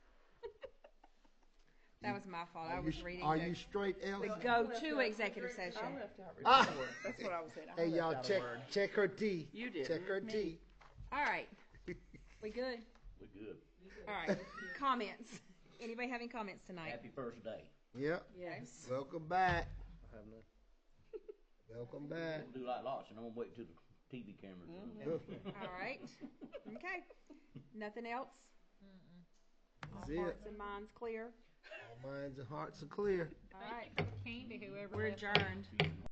That was my fault. I Are you was s- reading Are you the, straight, Elsie? the I left go-to out- executive I session. left out Ah. report. That's what I was saying. I Hey, left y'all, out a check, word. check her D. You Check didn't. her D. All right. We good? We good. All right. Comments. Anybody having comments tonight? Happy first day. Yep, Yes. welcome back, I have none. welcome back. We'll do like lots, and I'm gonna wait till the TV cameras. are on. All right. Okay. Nothing else? That's All it. hearts and minds clear? All minds and hearts are clear. All right. Candy, whoever We're left. adjourned. Peace and